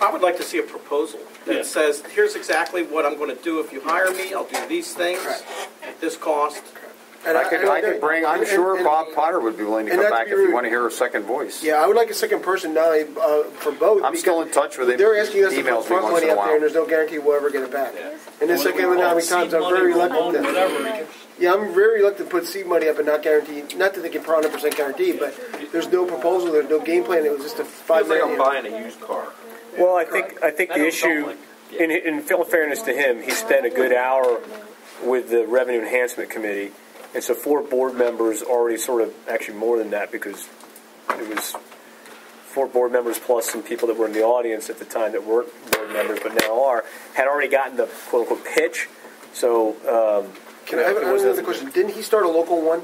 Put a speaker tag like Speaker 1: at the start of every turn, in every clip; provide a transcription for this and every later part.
Speaker 1: I would like to see a proposal
Speaker 2: Yeah.
Speaker 1: that says, here's exactly what I'm going to do if you hire me, I'll do these things
Speaker 3: Correct.
Speaker 1: at this cost.
Speaker 3: And
Speaker 4: I could,
Speaker 3: and
Speaker 4: I could bring, I'm
Speaker 3: and-
Speaker 4: sure
Speaker 3: and-
Speaker 4: Bob Potter would be willing to
Speaker 3: and
Speaker 4: come
Speaker 3: not to
Speaker 4: back
Speaker 3: be
Speaker 4: if you
Speaker 3: rude.
Speaker 4: want to hear a second voice.
Speaker 3: Yeah, I would like a second person now uh, for both.
Speaker 4: I'm still in
Speaker 3: because
Speaker 4: touch with him.
Speaker 3: They're asking us to
Speaker 4: Emails
Speaker 3: put
Speaker 4: me
Speaker 3: front
Speaker 4: once
Speaker 3: money
Speaker 4: in a
Speaker 3: up there, and
Speaker 4: while.
Speaker 3: there's no guarantee we'll ever get it back.
Speaker 2: Yeah.
Speaker 3: In this economic times, I'm very reluctant. to- Yeah, I'm very reluctant to put seed money up and not guarantee. Not that they can hundred percent guarantee, but there's no proposal, there's no game plan. It was just a five
Speaker 5: It's like
Speaker 3: minute.
Speaker 5: I'm buying a used car.
Speaker 6: Well, I think, I think
Speaker 5: I
Speaker 6: the
Speaker 5: don't
Speaker 6: issue,
Speaker 5: like-
Speaker 6: in, in full fairness to him, he spent a good hour with the Revenue Enhancement Committee, and so four board members already sort of, actually more than that, because it was four board members plus some people that were in the audience at the time that weren't board members, but now are, had already gotten the quote-unquote pitch, so, um,
Speaker 3: Can I have
Speaker 6: It
Speaker 3: I have
Speaker 6: wasn't-
Speaker 3: another question? Didn't he start a local one?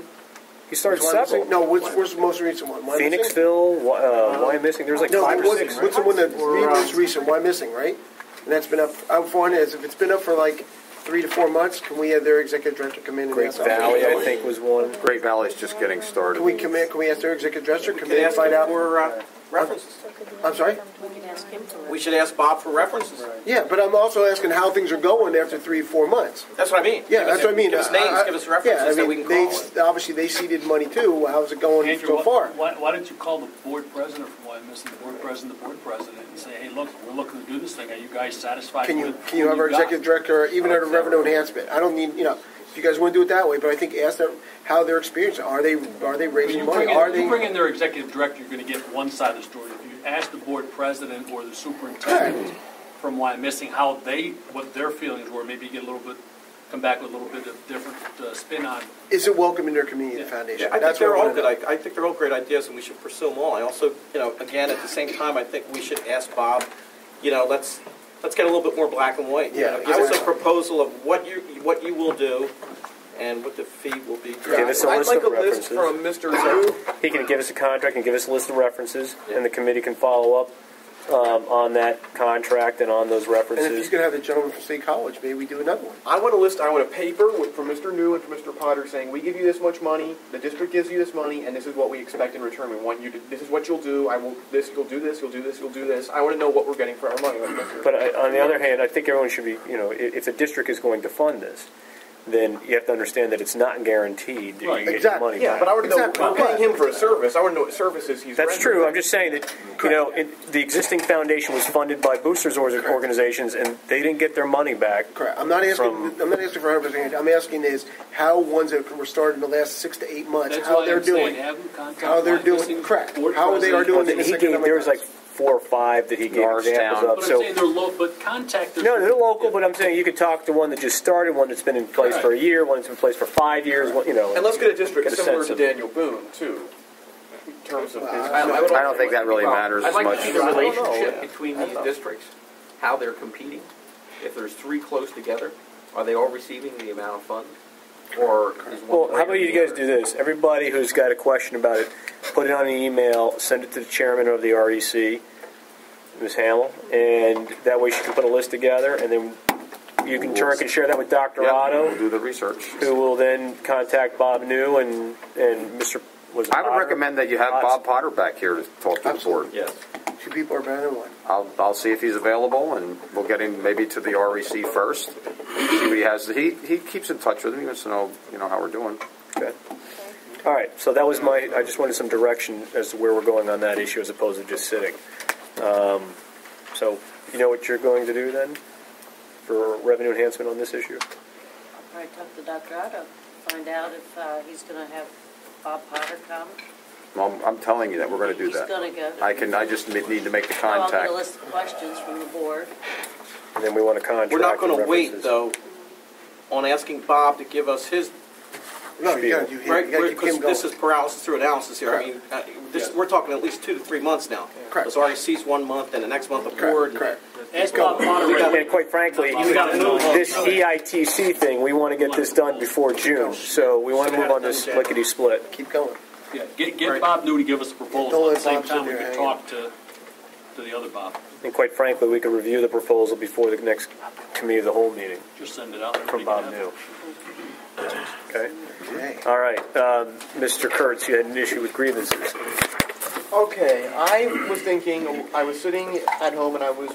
Speaker 6: he started
Speaker 3: Which one is it?
Speaker 6: several.
Speaker 3: No, what's, what's the most recent one? Why missing?
Speaker 6: Phoenixville, Wy- uh, why missing, there's like
Speaker 3: No,
Speaker 6: five or
Speaker 3: what's,
Speaker 6: six.
Speaker 3: what's the one that's the
Speaker 1: um,
Speaker 3: most recent? Why missing, right? And that's been up. I'm for it. If it's been up for like three to four months, can we have their executive director come in?
Speaker 6: Great
Speaker 3: and ask
Speaker 6: Valley, I think, was one.
Speaker 4: Great Valley's just getting started.
Speaker 3: Can we come in? Can we ask their executive director? Come
Speaker 1: Can I
Speaker 3: in and
Speaker 1: ask
Speaker 3: find
Speaker 1: him
Speaker 3: out.
Speaker 1: for uh, references?
Speaker 3: I'm sorry.
Speaker 1: We should ask Bob for references.
Speaker 3: Yeah, but I'm also asking how things are going after three, four months.
Speaker 1: That's what I mean. Give
Speaker 3: Yeah,
Speaker 1: us-
Speaker 3: that's what I mean.
Speaker 1: Give us
Speaker 3: I-
Speaker 1: names,
Speaker 3: I-
Speaker 1: give us
Speaker 3: yeah, I
Speaker 1: references that we
Speaker 3: mean,
Speaker 1: can call. on.
Speaker 3: They, obviously, they seeded money too. How's it going
Speaker 2: Andrew,
Speaker 3: so far?
Speaker 2: why, why- why don't you call the board president from YMS, the board president, the board president, and say, hey, look, we're looking to do this thing, are you guys satisfied
Speaker 3: Can
Speaker 2: with?
Speaker 3: you,
Speaker 2: who
Speaker 3: can you have our
Speaker 2: got?
Speaker 3: executive director, even under revenue enhancement? I don't need, you know, if you guys want to do it that way, but I think ask them how their experience, are they, are they
Speaker 2: When
Speaker 3: raising
Speaker 2: you
Speaker 3: money?
Speaker 2: bring in-
Speaker 3: Are
Speaker 2: you
Speaker 3: they?
Speaker 2: bring in their executive director, you're going to get one side of the story. If you ask the board president or the superintendent from why missing how they, what their feelings were, maybe you get a little bit, come back with a little bit of different uh, spin on.
Speaker 3: Is it welcome in their community, the foundation?
Speaker 1: Yeah, I think
Speaker 3: That's what
Speaker 1: they're
Speaker 3: I
Speaker 1: all
Speaker 3: wanna
Speaker 1: good,
Speaker 3: know.
Speaker 1: I, I think they're all great ideas, and we should pursue them all. I also, you know, again, at the same time, I think we should ask Bob, you know, let's, let's get a little bit more black and white. you
Speaker 3: Yeah,
Speaker 1: know, Give us a
Speaker 3: exactly.
Speaker 1: proposal of what you, what you will do, and what the fee will be.
Speaker 6: Give us a
Speaker 5: I'd
Speaker 6: list
Speaker 5: like
Speaker 6: of
Speaker 5: a list
Speaker 6: references.
Speaker 5: from Mr. Zoo.
Speaker 6: He can give us a contract and give us a list of references, and the committee can follow up um, on that contract and on those
Speaker 3: And if he's
Speaker 6: references.
Speaker 3: going to have the gentleman from State College, maybe we do another one.
Speaker 5: I want a list, I want a paper with, from Mr. New and from Mr. Potter saying, we give you this much money, the district gives you this money, and this is what we expect in return. We want you to, this is what you'll do, I will, this, you'll do this, you'll do this, you'll do this. I want to know what we're getting for our money. like Mr.
Speaker 6: But I- on the other hand, I think everyone should be, you know, i- if the district is going to fund this, then you have to understand that it's not guaranteed that you
Speaker 2: Right.
Speaker 6: get your
Speaker 3: Exactly.
Speaker 6: money
Speaker 5: Yeah, but I
Speaker 6: back.
Speaker 5: want to know,
Speaker 3: Exactly.
Speaker 5: I'm paying him for a service, I want to know what services he's
Speaker 6: That's
Speaker 5: rendering.
Speaker 6: true, I'm just saying that, you know, it- the existing foundation was funded by boosters or- organizations, and they didn't get their money back.
Speaker 3: Correct. I'm not asking,
Speaker 6: From-
Speaker 3: I'm not asking for hundred percent. I'm asking is how ones that were started in the last six to eight months,
Speaker 2: That's
Speaker 3: how
Speaker 2: why
Speaker 3: they're
Speaker 2: I'm saying,
Speaker 3: doing.
Speaker 2: have them contact.
Speaker 3: how they're
Speaker 2: YMS,
Speaker 3: doing- correct.
Speaker 2: board
Speaker 3: How they are
Speaker 2: president.
Speaker 3: doing
Speaker 6: Well,
Speaker 3: in the
Speaker 6: He
Speaker 3: second
Speaker 6: gave, there was like four or five that he gave examples
Speaker 4: Norristown.
Speaker 6: of,
Speaker 2: But
Speaker 6: so.
Speaker 2: I'm saying they're low, but contact their.
Speaker 6: No, they're local, but I'm saying you could talk to one that just started, one that's been in place for a year, one that's been in place for five years, one, you know.
Speaker 5: And let's get a district
Speaker 6: Get a
Speaker 5: similar
Speaker 6: sense
Speaker 5: to
Speaker 6: of-
Speaker 5: Daniel Boone, too, in terms of his.
Speaker 4: I don't think that really matters as
Speaker 7: I'd like to
Speaker 4: much.
Speaker 7: see the
Speaker 6: don't know.
Speaker 7: relationship between these districts, how they're competing. If there's three close together, are they all receiving the amount of funds? Or is one?
Speaker 6: Well, how about
Speaker 7: greater
Speaker 6: you
Speaker 7: than the
Speaker 6: guys
Speaker 7: other?
Speaker 6: do this? Everybody who's got a question about it, put it on an email, send it to the chairman of the REC, Ms. Hamel, and that way she can put a list together, and then you can turn and share that with Dr.
Speaker 4: Yeah, we'll
Speaker 6: Otto,
Speaker 4: do the research.
Speaker 6: who will then contact Bob New and, and Mr. was it
Speaker 4: I would
Speaker 6: Potter?
Speaker 4: recommend that you have Bob Potter back here to talk to the board.
Speaker 3: Absolutely. Two people are better than one.
Speaker 4: I'll, I'll see if he's available, and we'll get him maybe to the REC first. See what he has. He he keeps in touch with me. He wants to know you know how we're doing.
Speaker 6: Okay. All right, so that was my, I just wanted some direction as to where we're going on that issue as opposed to just sitting. Um, So you know what you're going to do then for revenue enhancement on this issue?
Speaker 8: All right, talk to Dr. Otto, find out if uh, he's going to have Bob Potter come.
Speaker 4: Well, I'm telling you that we're going to do
Speaker 8: He's
Speaker 4: that.
Speaker 8: gonna go.
Speaker 4: I can. I just need to make the
Speaker 8: So I'll get
Speaker 4: contact.
Speaker 8: a list of questions from the board.
Speaker 6: And then we want to contract.
Speaker 1: We're not
Speaker 6: and
Speaker 1: gonna wait,
Speaker 6: references.
Speaker 1: though, on asking Bob to give us his,
Speaker 3: No, you gotta do him.
Speaker 1: right,
Speaker 3: You gotta keep
Speaker 1: because
Speaker 3: him going.
Speaker 1: this is paralysis through analysis here. I mean, uh, this, we're talking at least two to three months now.
Speaker 3: Correct.
Speaker 1: Because REC's one month, and the next month the board.
Speaker 3: Correct, correct.
Speaker 2: Ask Bob Potter. right away.
Speaker 6: And quite frankly,
Speaker 1: gotta move on.
Speaker 6: this E EITC thing, we want to get this done before June. So we want to move on this lickety-split.
Speaker 3: Keep going.
Speaker 2: Yeah, Get, get
Speaker 1: Right.
Speaker 2: Bob New to give us a
Speaker 3: Don't
Speaker 2: proposal,
Speaker 3: let
Speaker 2: at the same
Speaker 3: Bob sit
Speaker 2: time, we
Speaker 3: there
Speaker 2: can
Speaker 3: hanging.
Speaker 2: talk to, to the other Bob,
Speaker 6: And quite frankly, we could review the proposal before the next committee of the whole meeting
Speaker 2: just send it out. there.
Speaker 6: from Bob New. Okay?
Speaker 3: Okay.
Speaker 6: All right, um, Mr. Kurtz, you had an issue with grievances.
Speaker 5: Okay, I was thinking, I was sitting at home and I was